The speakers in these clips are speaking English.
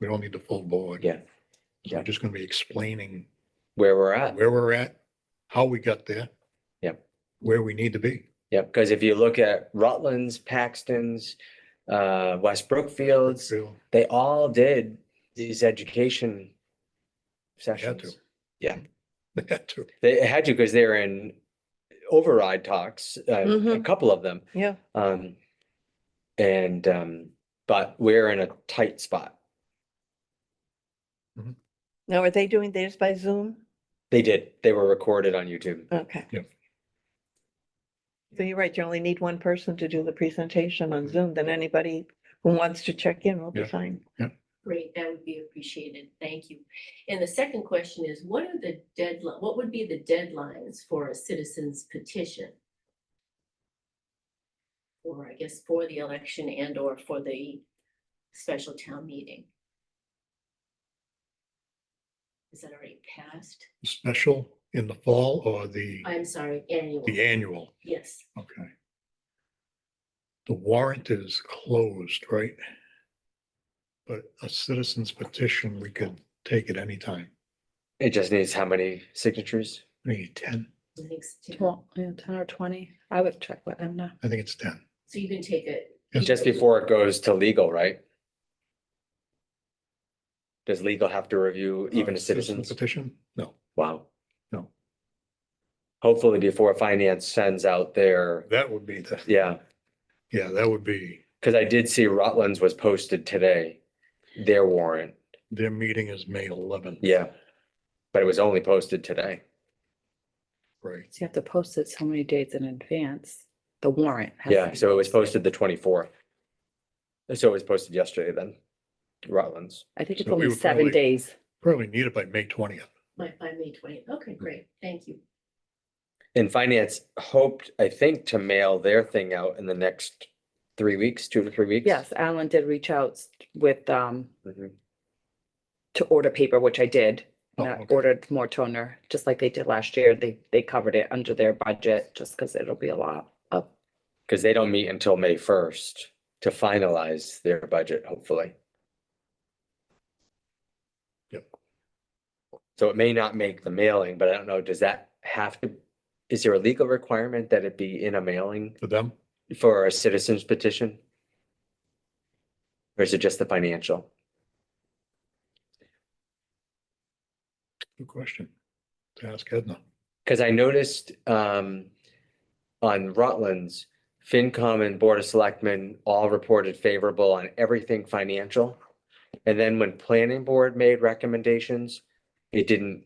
We don't need the full board. Yeah, So yeah. We're just gonna be explaining where we're at. where we're at, how we got there. Yep. Where we need to be. Yeah, because if you look at Rutland's, Paxton's, uh, West Brookfield's, So, they all did these education They had to. sessions. Yeah. They had to. They had to because they were in override talks, uh, a Mhm. couple of them. Yeah. Um, and, um, but we're in a tight spot. Now, are they doing theirs by Zoom? They did. They were recorded on YouTube. Okay. Yep. So you're right, you only need one person to do the presentation on Zoom, then anybody who wants to check in will be Mm-hmm. Yeah. fine. Great, that would be appreciated. Thank you. And the second question is, what are the deadline, what would be the deadlines for a citizen's petition? Or I guess for the election and or for the special town meeting? Is that already passed? Special in the fall or the, I'm sorry, annual. the annual? Yes, Okay. The warrant is closed, right? But a citizen's petition, we could take at any time. It just needs how many signatures? I think it's ten. I think so. Well, yeah, ten or twenty. I would check with them now. I think it's ten. So you can take it. Yes. Just before it goes to legal, right? Does legal have to review even Uh, a citizen's? Petition? No, Wow. No. Hopefully before finance sends out their, that would be the, yeah, yeah, that would be, because I did see Rutland's was posted today, their warrant, their meeting is May eleventh. yeah. But it was only posted today. Right, So you have to post it so many days in advance. The warrant. has to Yeah, be so it was posted the twenty-fourth. So it was posted yesterday then, Rutland's. I think it's so we only would seven probably- days. probably need it by May twentieth. By, by May twenty. Okay, great. Thank you. And finance hoped, I think, to mail their thing out in the next three weeks, two to three weeks. Yes, Alan did reach out s- with, um, Mhm. to order paper, which I did. Oh, and I okay. Ordered more toner, just like they did last year. They, they covered it under their budget, just because it'll be a lot of, Because they don't meet until May first to finalize their budget, hopefully. Yep. So it may not make the mailing, but I don't know, does that have to, is there a legal requirement that it be in a mailing For them, for a citizen's petition? Or is it just the financial? good question to ask Edna. Because I noticed um on Rutland's, FinCom and Board of Selectmen all reported favorable on everything financial. And then when Planning Board made recommendations, it didn't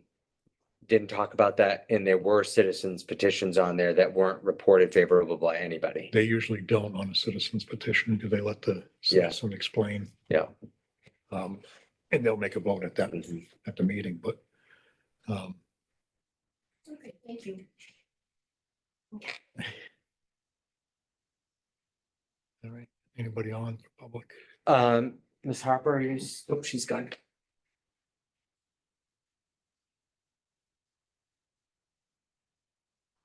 didn't talk about that, and there were citizens petitions on there that weren't reported favorable by anybody. They usually don't on a citizen's petition. Do they let the Yeah. citizen explain? Yeah. Um, and they'll make a vote at that, Mhm. at the meeting, but, um, Okay, thank you. all right, anybody on for public? Um, Ms. Harper is, oh, she's gone.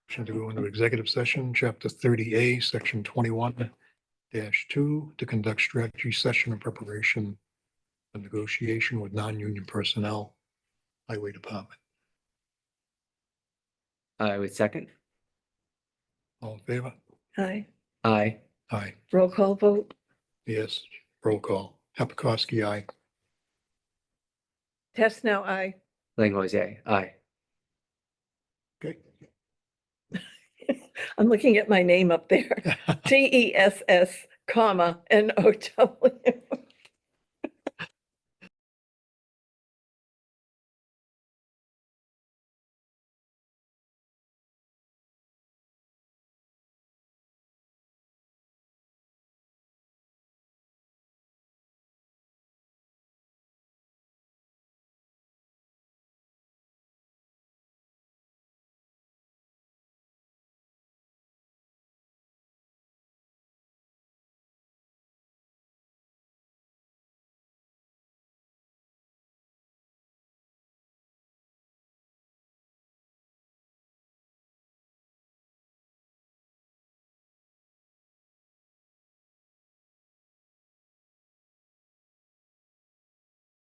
Motion to go into executive session, chapter thirty A, section twenty-one two, to conduct strategy session in preparation of negotiation with non-union personnel, highway department. I would second. All in favor? Hi, Aye. Aye, roll call vote, yes, roll call. Hapakowski, aye. test now, I. Langois, aye. Aye. Okay. I'm looking at my name up there, T E S S, comma, N O W.